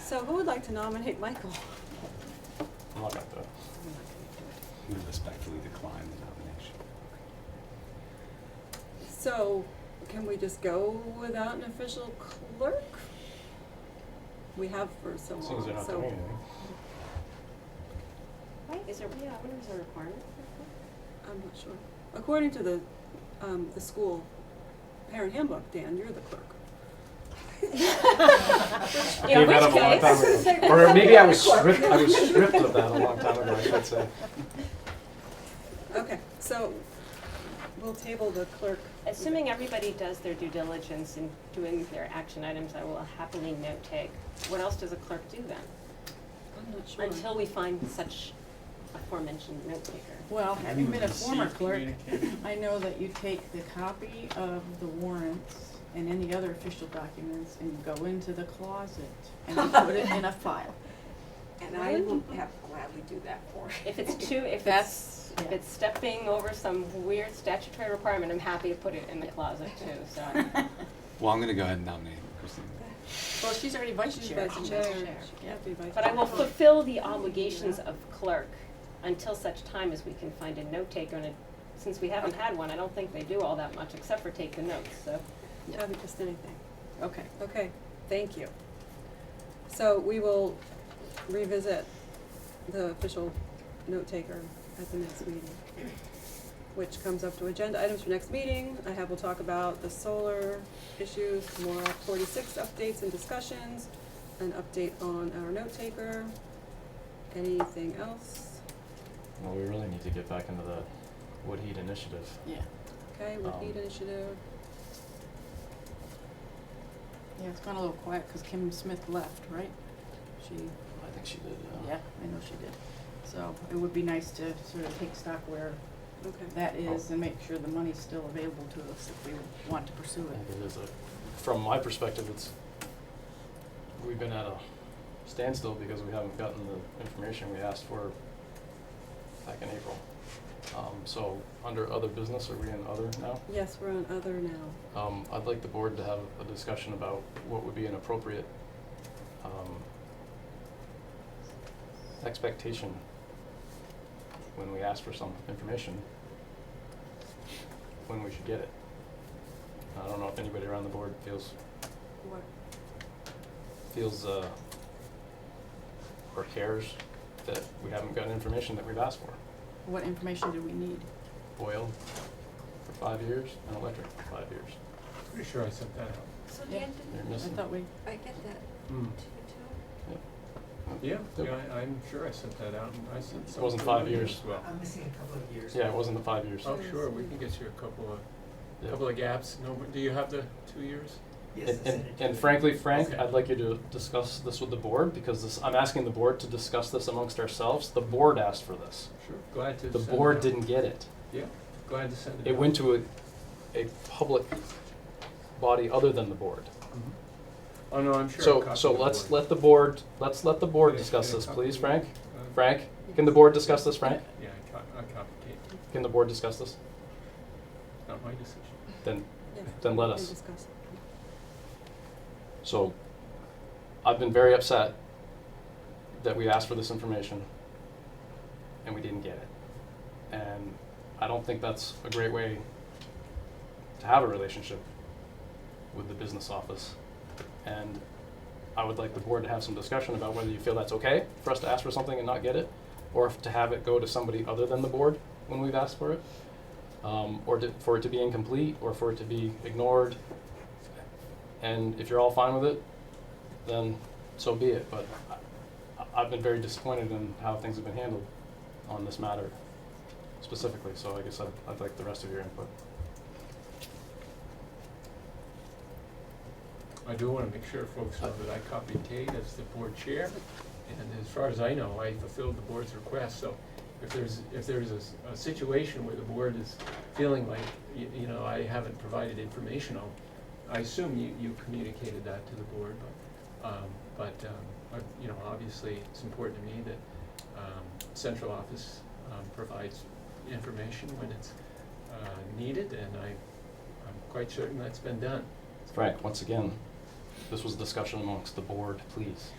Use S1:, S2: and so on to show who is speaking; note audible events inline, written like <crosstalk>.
S1: So who would like to nominate Michael?
S2: How about that?
S3: We respectfully decline the nomination.
S1: So can we just go without an official clerk? We have for so long,
S2: As
S1: so.
S2: long as they're not doing anything.
S4: Right, is there, yeah, I wonder is there a requirement for
S1: I'm not sure. According to the, um, the school parent handbook, Dan, you're the clerk.
S4: that?
S2: I gave that up a long time
S5: <laughs>
S2: ago. <laughs> Or maybe I was stripped, I was stripped of that a long time ago, I should say.
S1: Okay, so we'll table the clerk.
S4: Assuming everybody does their due diligence in doing their action items, I will happily note take. What else does a clerk do then?
S1: I'm not sure.
S4: Until we find such aforementioned note taker.
S6: Well, having been a
S5: Receive
S6: former clerk,
S5: communication.
S6: I know that you take the copy of the warrants and any other official documents and you go into the closet and you put it in a file.
S7: And I will have gladly do that for you.
S4: If it's too, if
S6: That's-
S4: it's,
S6: <laughs>
S4: if it's stepping over some weird statutory requirement, I'm happy to put it in the closet too, so.
S3: Well, I'm gonna go ahead and nominate Christine.
S6: Well, she's already vice
S1: She's
S6: chair.
S1: vice
S4: chair.
S1: chair. She
S6: Yeah.
S1: can't be vice
S4: But I will
S1: chair.
S4: fulfill the obligations of clerk until such time as we can find a note taker, and it- since we haven't had one, I don't think they do all that much except for take the notes, so.
S1: I haven't just anything.
S6: Okay.
S1: Okay, thank you. So we will revisit the official note taker at the next meeting, which comes up to agenda items for next meeting. I have, we'll talk about the solar issues, more forty-six updates and discussions, an update on our note taker. Anything else?
S5: Well, we really need to get back into the Wood Heat Initiative.
S6: Yeah,
S1: Okay, would need
S5: Um,
S1: initiative.
S6: yeah, it's gone a little quiet because Kim Smith left, right? She,
S5: I think she did, uh,
S6: yeah, I know she did. So it would be nice to sort of take stock where
S1: Okay,
S6: that is and make sure the money's still available to us if we want to pursue
S5: I
S6: it.
S5: think it is a, from my perspective, it's, we've been at a standstill because we haven't gotten the information we asked for back in April. Um, so, under other business, are we in other now?
S1: yes, we're on other now.
S5: Um, I'd like the board to have a discussion about what would be an appropriate, um, expectation when we ask for some information, when we should get it. I don't know if anybody around the board feels,
S1: What?
S5: feels, uh, or cares that we haven't gotten information that we've asked for.
S6: What information do we need?
S5: Oil for five years and electric for five years.
S2: Pretty sure I sent that out.
S7: So
S6: Yeah.
S7: Dan,
S5: You're
S6: I
S5: missing.
S6: thought we,
S7: did I get that to you too?
S2: Yeah,
S5: Hmm. Yep.
S2: yeah, I, I'm sure I sent that out, and I sent
S5: It wasn't
S2: something
S5: five
S2: to you
S5: years.
S2: as well.
S8: I'm missing a couple of years.
S5: Yeah, it wasn't the five years.
S2: Oh, sure, we can get you a couple of,
S5: Yeah.
S2: couple of gaps, no, do you have the two years?
S8: Yes, I
S5: And,
S8: said
S5: and,
S8: it to
S5: and
S8: you.
S5: frankly, Frank,
S2: Okay.
S5: I'd like you to discuss this with the board, because this, I'm asking the board to discuss this amongst ourselves. The board asked for this.
S2: Sure, glad to send
S5: The
S2: it
S5: board
S2: out.
S5: didn't get it.
S2: Yeah, glad to send it out.
S5: It went to a, a public body other than the board.
S2: Mhm. Oh, no, I'm sure I
S5: So,
S2: copied
S5: so
S2: the
S5: let's
S2: board.
S5: let the board, let's let the board
S2: Did I-
S5: discuss
S2: did I
S5: this,
S2: copy
S5: please,
S2: the
S5: Frank?
S2: board? Uh,
S5: Frank, can the board discuss this, Frank?
S2: Yeah, I co- I copied it,
S5: Can the board discuss this?
S2: not my decision.
S5: Then,
S1: Yeah.
S5: then let
S1: we
S5: us.
S1: can discuss it.
S5: So I've been very upset that we asked for this information and we didn't get it. And I don't think that's a great way to have a relationship with the business office. And I would like the board to have some discussion about whether you feel that's okay for us to ask for something and not get it, or if to have it go to somebody other than the board when we've asked for it, um, or to, for it to be incomplete, or for it to be ignored. And if you're all fine with it, then so be it. But I, I've been very disappointed in how things have been handled on this matter specifically. So I guess I'd, I'd like the rest of your input.
S2: I do want to make sure folks know that I copied Tate as the board chair, and as far as I know, I fulfilled the board's request, so if there's, if there's a, s- a situation where the board is feeling like, you, you know, I haven't provided information, I'll, I assume you, you communicated that to the board, but, um, but, um, I- you know, obviously, it's important to me that, um, central office, um, provides information when it's, uh, needed, and I, I'm quite certain that's been done.
S5: Frank, once again, this was a discussion amongst the board, please.